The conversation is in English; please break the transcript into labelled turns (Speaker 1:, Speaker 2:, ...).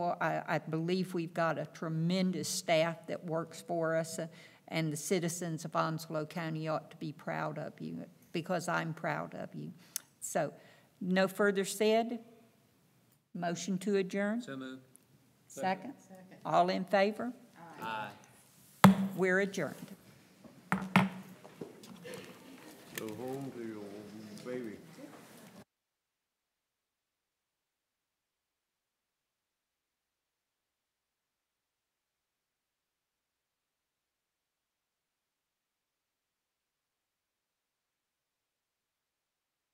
Speaker 1: Well, I, I believe we've got a tremendous staff that works for us, uh, and the citizens of Onslow County ought to be proud of you, because I'm proud of you. So, no further said? Motion to adjourn?
Speaker 2: So moved.
Speaker 1: Second? All in favor?
Speaker 2: Aye.
Speaker 1: We're adjourned.
Speaker 3: Go home to your baby.